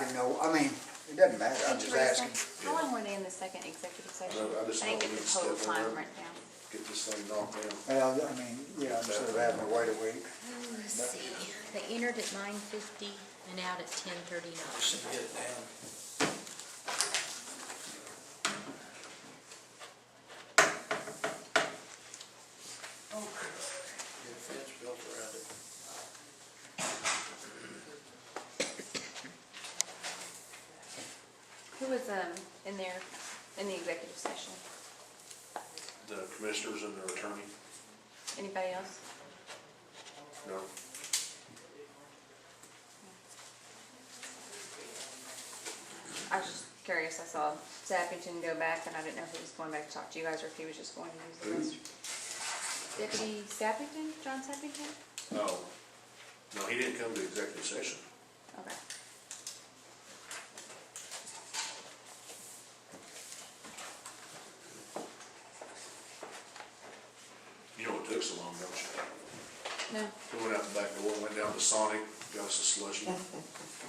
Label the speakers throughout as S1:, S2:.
S1: didn't know, I mean, it doesn't matter, I'm just
S2: Teresa,
S1: asking.
S2: How long were they in the second executive session?
S3: I know, I just
S2: I didn't
S3: know
S2: get
S3: we
S2: the
S3: need to
S2: total
S3: step in
S2: time
S3: there.
S2: right now.
S3: Get this thing knocked down.
S1: Well, I mean, yeah, instead of having to wait a week.
S4: Let's see, they entered at nine fifty and out at ten thirty-nine.
S5: Should get it down. Get a fence built around it.
S2: Who was, um, in there, in the executive session?
S3: The commissioners and their attorney,
S2: Anybody else?
S3: no?
S2: I was just curious, I saw Sappington go back, and I didn't know if he was going back to talk to you guys, or if he was just going to use the restroom. Deputy Sappington, John Sappington?
S3: No. No, he didn't come to executive session.
S2: Okay.
S3: You know what took so long, don't you?
S2: No,
S3: We went out the back door, went down to Sonic, got us a slushy.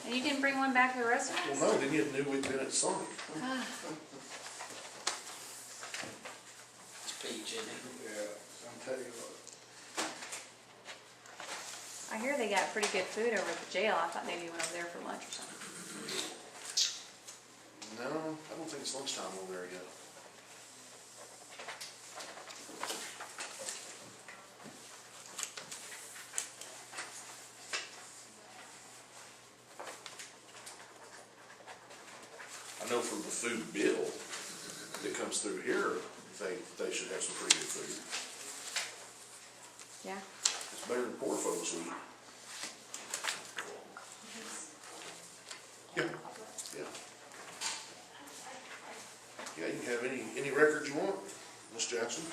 S2: and you didn't bring one back to the
S3: Well,
S2: restaurant?
S3: no, then you knew we'd been at Sonic.
S5: It's peach, isn't it?
S3: Yeah, I'm telling you what.
S2: I hear they got pretty good food over at the jail, I thought maybe you went over there for lunch or something.
S3: No, I don't think it's lunchtime over there yet. I know from the food bill that comes through here, they, they should have some pretty good food.
S2: Yeah?
S3: It's better than poor folks eat. Yeah, yeah. Yeah, you can have any, any record you want, Miss Jackson.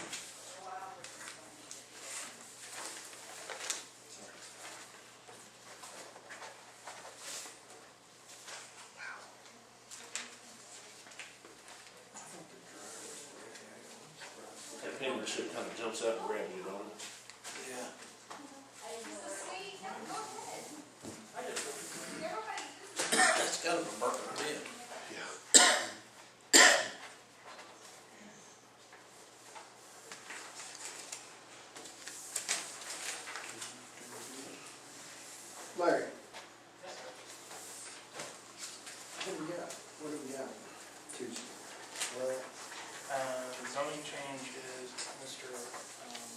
S3: That penmanship kind of jumps out and grabs you, don't it?
S5: Yeah. It's got a Burger King.
S3: Yeah.
S6: Larry. What do we got? What do we got? Tuesday. Well,
S7: Uh, the zoning change is Mr., um,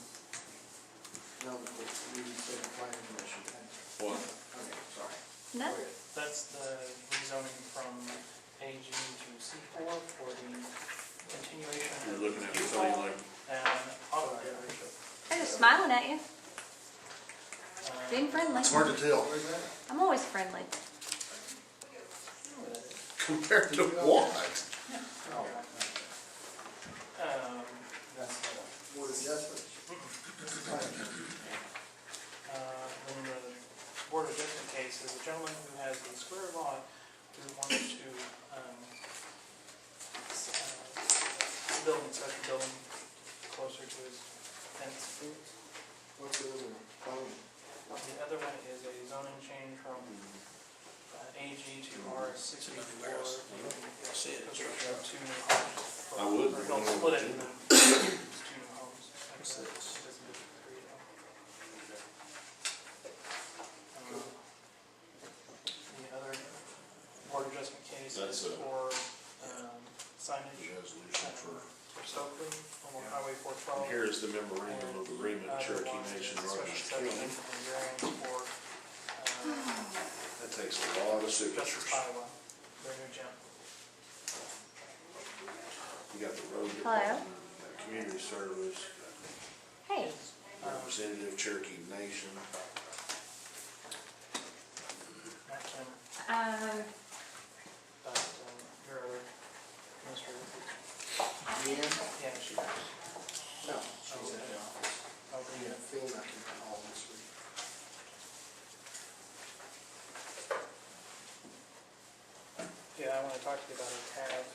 S6: no, we need to set a plan in motion.
S3: What?
S6: Okay, sorry.
S2: No?
S6: Go ahead.
S7: that's the rezoning from AG to C4 for the continuation. of
S3: You're looking at something like,
S7: And auto dealership.
S2: They're just smiling at you,
S7: Um,
S2: being friendly.
S3: it's hard to tell
S6: Where's that?
S2: I'm always friendly.
S3: compared to what?
S6: Oh,
S7: Um,
S6: that's the board adjustments.
S7: Mm-hmm. uh, then the board of adjustment case is a gentleman who has a square lot who wanted to, um, s- uh, build a special building closer to his fence.
S6: What's the other one? Phone.
S7: The other one is a zoning change from uh, AG to R sixty-four.
S5: Mm-hmm. See it.
S7: Construction of two new homes.
S3: I would.
S7: Or don't split it, and then it's two new homes.
S5: What's this?
S7: Um, The other board adjustment case
S3: That's
S7: is
S3: a-
S7: for um, signage
S3: Resolution for,
S7: for Stokely along Highway four twelve. Uh,
S3: here is the memorandum of agreement Cherokee Nation Rogers County.
S7: uh,
S3: That takes a lot of signatures. You got the road department, uh, community service,
S2: Hey,
S7: Um,
S3: representative Cherokee Nation.
S2: um,
S6: Yeah?
S7: Yeah, she does.
S6: No, she's in the office. Yeah, Phil not in the hall this week.
S7: Yeah, I want to talk to you about her tab,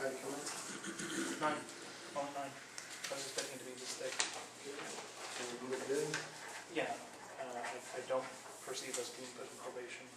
S6: How'd it come in?
S7: nine, oh, nine, I was expecting to be this thick.
S6: Did it look good?
S7: Yeah, uh, I I don't perceive us being put in probation.